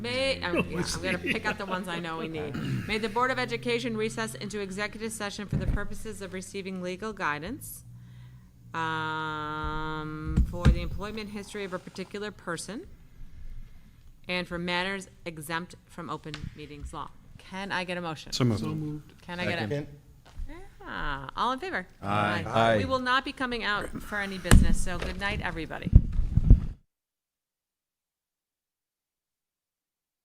May, oh, yeah, I'm gonna pick out the ones I know we need. May the Board of Education recess into executive session for the purposes of receiving legal guidance um, for the employment history of a particular person and for matters exempt from open meetings law. Can I get a motion? So moved. Can I get a? Yeah, all in favor? Aye. Aye. We will not be coming out for any business, so good night, everybody.